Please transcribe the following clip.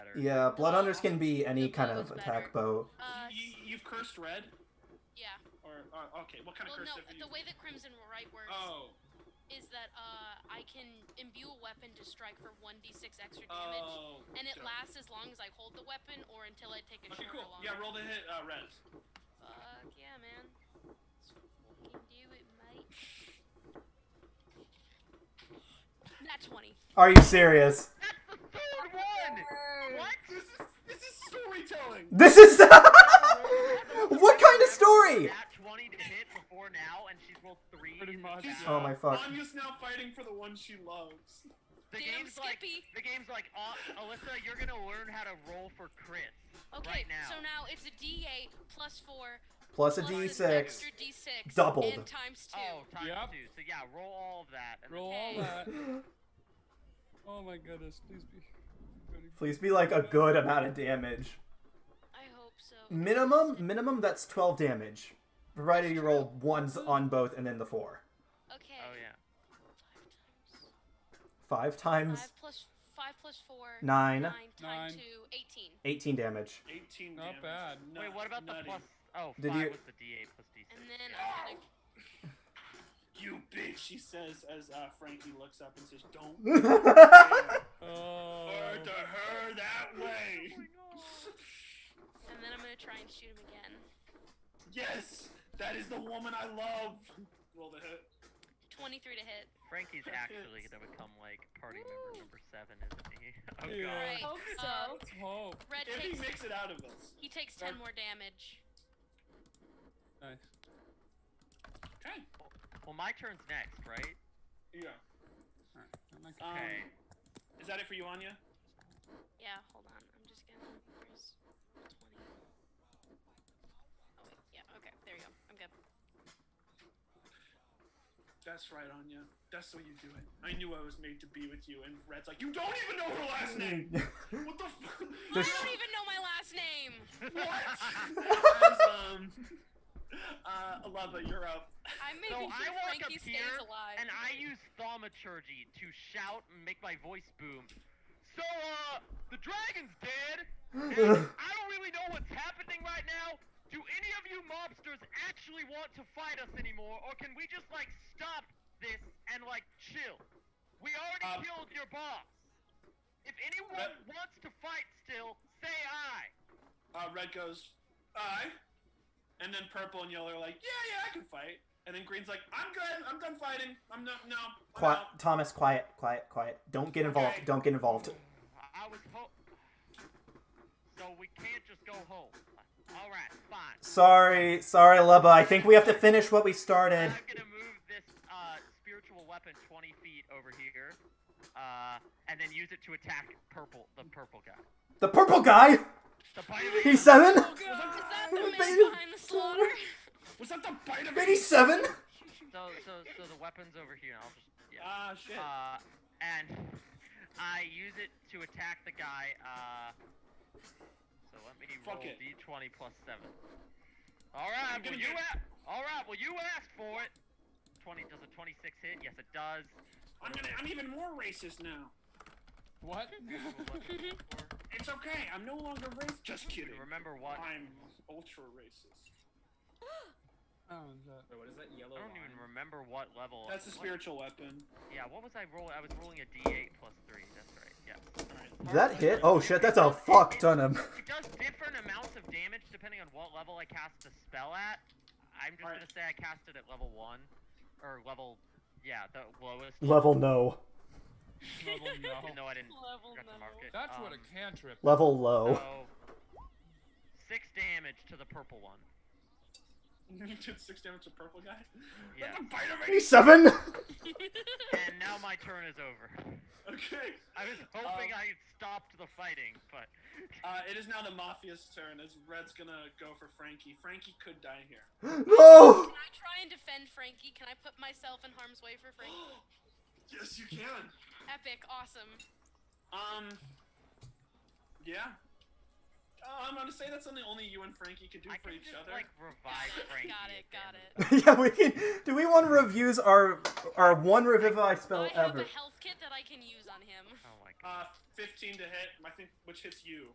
better. Yeah, blood hunters can be any The kind bow of is attack bow. Uh, you, you've cursed red, yeah. or uh, okay, what kind Well, of curse no. have you? The way that Crimson Right works oh, is that uh, I can imbue a weapon to strike for one d6 extra damage, oh, and it okay. lasts as long as I hold the weapon or until I take a Okay, short cool. or long Yeah, roll the hit, uh, red. Fuck yeah, man. Let's fucking do it, mate. Not 20. Are you serious? That's the third one. What? This is this is storytelling. This is what kind of story? Nat 20 to hit before now, and she's rolled three. Pretty much. Wow. Oh my fuck. Anya's now fighting for the one she loves. The Damn game's like, Skippy. the game's like, uh, Alyssa, you're gonna learn how to roll for crits. Okay, right now. so now it's a D8 plus 4 Plus a plus an d6. extra D6 doubled. and times 2. Oh, times Yep. two. So yeah, roll all of that. And Roll all Okay. that. Oh my goodness, please be. Please be like a good amount of damage. I hope so. Minimum, minimum that's 12 damage. Provided you roll ones on both and then the four. Okay. Oh yeah. Five 5 times. times 5 plus 5 plus 4. Nine. 9 times Nine. 2. 18. 18 damage. 18 Not damage. bad. Nut- Wait, what about nutty. the plus? Oh, Did five you- was the D8 plus D6. And then uh, yeah. I'm gonna. You bitch, she says as uh, Frankie looks up and says, "Don't That's Oh. word to her that way." And then I'm gonna try and shoot him again. Yes, that is the woman I love. Roll the hit. 23 to hit. Frankie's That actually hits. gonna become like party Woo. member number seven, isn't he? Oh Yeah. god. Right. Hope uh, so. Oh, Red If he takes. makes it out of us, He takes 10 Or- more damage. nice. okay. Well, my turn's next, right? Yeah. Alright, I'm not- Um, Okay. Is that it for you, Anya? Yeah, hold on. I'm just gonna. Where's 20? Oh, wait. Yeah, okay. There you go. I'm good. That's right, Anya. That's what you do it. I knew I was made to be with you. And Red's like, you don't even know her last name. What the fuck? Just- I don't even know my last name! what? As, um, uh, Alava, you're up. I'm So making I sure walk Frankie up here stays alive. and I use thaumaturgy to shout and make my voice boom. So, uh, the dragon's dead. And I don't really know what's happening right now. Do any of you mobsters actually want to fight us anymore, or can we just like stop this and like chill? We already Um, killed your boss. If anyone But- wants to fight still, say aye. Uh, Red goes, I. And then Purple and Yellow are like, yeah, yeah, I can fight. And then Green's like, I'm good. I'm done fighting. I'm not, no. I'm Qui- out." Thomas, quiet, quiet, quiet. Don't get involved. Don't get involved. I I was ho- So we can't just go home. All right, fine. Sorry, sorry, Lubba. I think we have to finish what we started. I'm gonna move this uh, spiritual weapon 20 feet over here, uh, and then use it to attack purple, the purple guy. The purple guy. The bite He's seven. Oh, Is that the man Baby- behind the slaughter? Was that the bite of Baby seven. so, so, so the weapon's over here. I'll just yeah. Ah, shit. Uh, and I use it to attack the guy. Uh, so let me Fuck roll it. d20 plus seven. All right, I'm well gonna you get- a- all right, well you asked for it. 20 does a 26 hit? Yes, it does. I'm gonna, I'm even more racist now. What? Spiritual weapon plus four. It's okay. I'm no longer racist. Just kidding. Remember what? I'm ultra racist. oh, that. Wait, what is that yellow I don't line? even remember what level. That's a what- spiritual weapon. yeah, what was I rolling? I was rolling a D8 plus three. That's right. Yeah. Did that hit? Oh shit, that's a fuck ton of. It does different amounts of damage depending on what level I cast the spell at. I'm just Alright. gonna say I cast it at level one, or level, yeah, the lowest. Level no. Level no. Even though I didn't Level forgot to mark no. it. That's what a Um, cantrip. Level low. So, six damage to the purple one. you did six damage to purple guy. Yeah. That's a bite of Baby racist. seven. and now my turn is over. Okay. I was hoping Um, I had stopped the fighting, but Uh, it is now the mafia's turn as Red's gonna go for Frankie. Frankie could die here. No. Can I try and defend Frankie? Can I put myself in harm's way for Frankie? yes, you can. Epic, awesome. Um. Yeah. Um. I'm gonna say that's something only you and Frankie could do I for can each just other. like revive Frankie. got it, if got Amazon- it. yeah, we can. Do we want to review our our one revivify spell I have ever? a health kit that I can use on him. Oh my god. Uh, 15 to hit. I think which hits you.